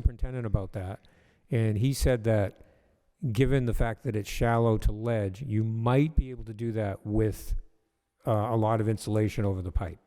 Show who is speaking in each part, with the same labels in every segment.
Speaker 1: superintendent about that, and he said that, given the fact that it's shallow to ledge, you might be able to do that with uh, a lot of insulation over the pipe.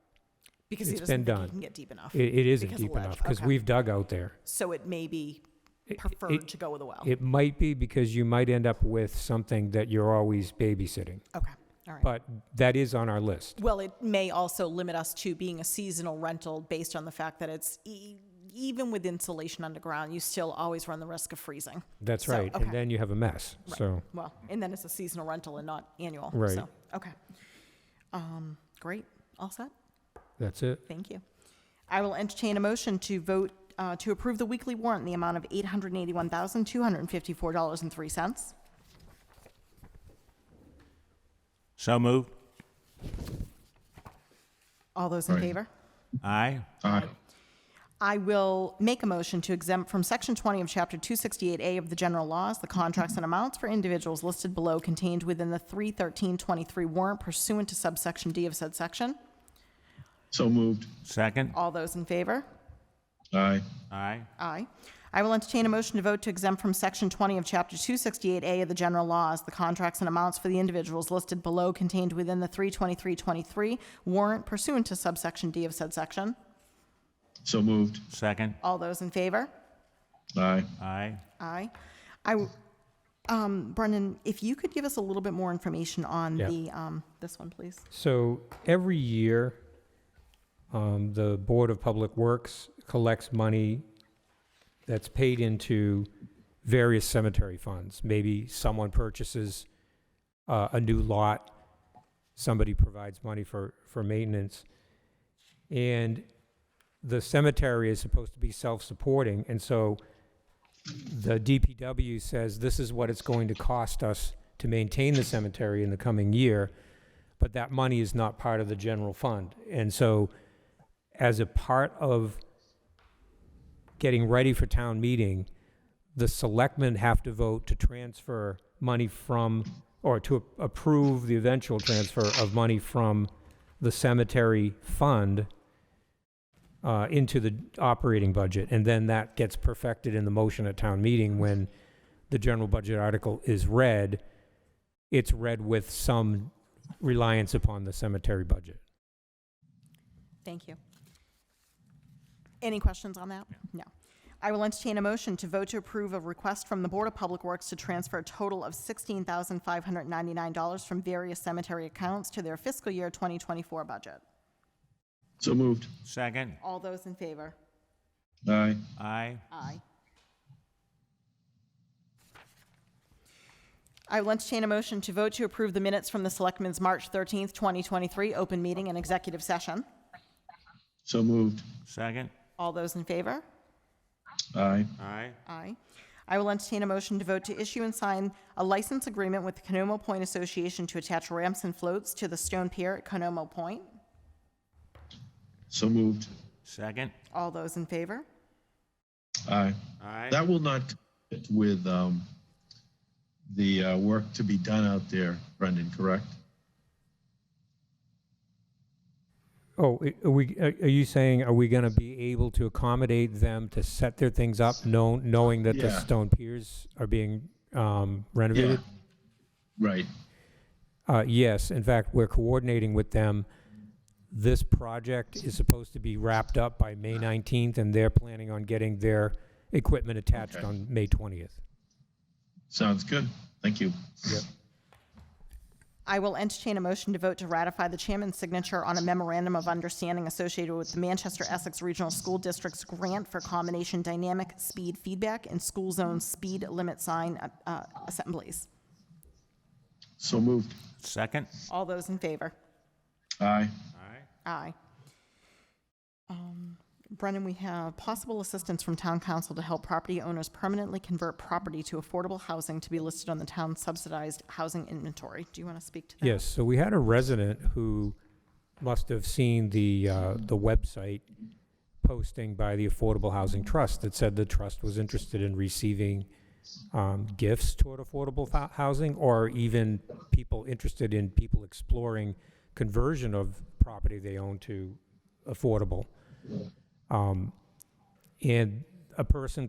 Speaker 2: Because he
Speaker 1: It's
Speaker 2: doesn't
Speaker 1: been
Speaker 2: think he
Speaker 1: done.
Speaker 2: can get deep enough.
Speaker 1: It, it isn't
Speaker 2: Because of
Speaker 1: deep
Speaker 2: ledge,
Speaker 1: enough, because
Speaker 2: okay.
Speaker 1: we've dug out there.
Speaker 2: So it may be
Speaker 1: It-
Speaker 2: preferred to go with a well.
Speaker 1: It might be because you might end up with something that you're always babysitting,
Speaker 2: Okay, all right.
Speaker 1: but that is on our list.
Speaker 2: Well, it may also limit us to being a seasonal rental based on the fact that it's, e- even with insulation underground, you still always run the risk of freezing.
Speaker 1: That's
Speaker 2: So,
Speaker 1: right,
Speaker 2: okay.
Speaker 1: and then you have a mess,
Speaker 2: Right.
Speaker 1: so.
Speaker 2: Well, and then it's a seasonal rental and not annual.
Speaker 1: Right.
Speaker 2: So, okay. Um, great. All set.
Speaker 1: That's it.
Speaker 2: Thank you. I will entertain a motion to vote uh, to approve the weekly warrant in the amount of $881,254.03.
Speaker 3: So moved.
Speaker 2: All those in
Speaker 4: Aye.
Speaker 2: favor?
Speaker 3: Aye.
Speaker 4: Aye.
Speaker 2: I will make a motion to exempt from Section 20 of Chapter 268A of the general laws the contracts and amounts for individuals listed below contained within the 31323 warrant pursuant to subsection D of said section.
Speaker 4: So moved.
Speaker 3: Second.
Speaker 2: All those in favor?
Speaker 4: Aye.
Speaker 3: Aye.
Speaker 2: Aye. I will entertain a motion to vote to exempt from Section 20 of Chapter 268A of the general laws the contracts and amounts for the individuals listed below contained within the 32323 warrant pursuant to subsection D of said section.
Speaker 4: So moved.
Speaker 3: Second.
Speaker 2: All those in favor?
Speaker 4: Aye.
Speaker 3: Aye.
Speaker 2: Aye. I, w- um, Brendan, if you could give us a little bit more information on
Speaker 1: Yeah.
Speaker 2: the, um, this one, please.
Speaker 1: So every year, um, the Board of Public Works collects money that's paid into various cemetery funds. Maybe someone purchases uh, a new lot, somebody provides money for, for maintenance. And the cemetery is supposed to be self-supporting, and so the DPW says this is what it's going to cost us to maintain the cemetery in the coming year but that money is not part of the general fund. And so, as a part of getting ready for town meeting, the selectmen have to vote to transfer money from, or to approve the eventual transfer of money from the cemetery fund uh, into the operating budget. And then that gets perfected in the motion at town meeting when the general budget article is read. It's read with some reliance upon the cemetery budget.
Speaker 2: Thank you. Any questions on that? No. I will entertain a motion to vote to approve a request from the Board of Public Works to transfer a total of $16,599 from various cemetery accounts to their fiscal year 2024 budget.
Speaker 4: So moved.
Speaker 3: Second.
Speaker 2: All those in favor?
Speaker 4: Aye.
Speaker 3: Aye.
Speaker 2: Aye. I will entertain a motion to vote to approve the minutes from the Selectmen's March 13th, 2023, open meeting and executive session.
Speaker 4: So moved.
Speaker 3: Second.
Speaker 2: All those in favor?
Speaker 4: Aye.
Speaker 3: Aye.
Speaker 2: Aye. I will entertain a motion to vote to issue and sign a license agreement with the Canomo Point Association to attach ramps and floats to the stone pier at Canomo Point.
Speaker 4: So moved.
Speaker 3: Second.
Speaker 2: All those in favor?
Speaker 4: Aye.
Speaker 3: Aye.
Speaker 4: That will not fit with um, the uh, work to be done out there, Brendan, correct?
Speaker 1: Oh, i- are we, are are you saying, are we gonna be able to accommodate them to set their things up, known, knowing that the
Speaker 4: Yeah.
Speaker 1: stone piers are being um, renovated?
Speaker 4: Right.
Speaker 1: Uh, yes, in fact, we're coordinating with them. This project is supposed to be wrapped up by May nineteenth, and they're planning on getting their equipment attached
Speaker 4: Okay.
Speaker 1: on May twentieth.
Speaker 4: Sounds good. Thank you.
Speaker 1: Yep.
Speaker 2: I will entertain a motion to vote to ratify the chairman's signature on a memorandum of understanding associated with the Manchester Essex Regional School District's grant for combination dynamic speed feedback and school zone speed limit sign uh, uh, assemblies.
Speaker 4: So moved.
Speaker 3: Second.
Speaker 2: All those in favor?
Speaker 4: Aye.
Speaker 3: Aye.
Speaker 2: Aye. Um, Brennan, we have possible assistance from town council to help property owners permanently convert property to affordable housing to be listed on the town subsidized housing inventory. Do you want to speak to that?
Speaker 1: Yes, so we had a resident who must have seen the, uh, the website posting by the Affordable Housing Trust that said the trust was interested in receiving, um, gifts toward affordable fo- housing or even people interested in people exploring conversion of property they own to affordable. Um, and a person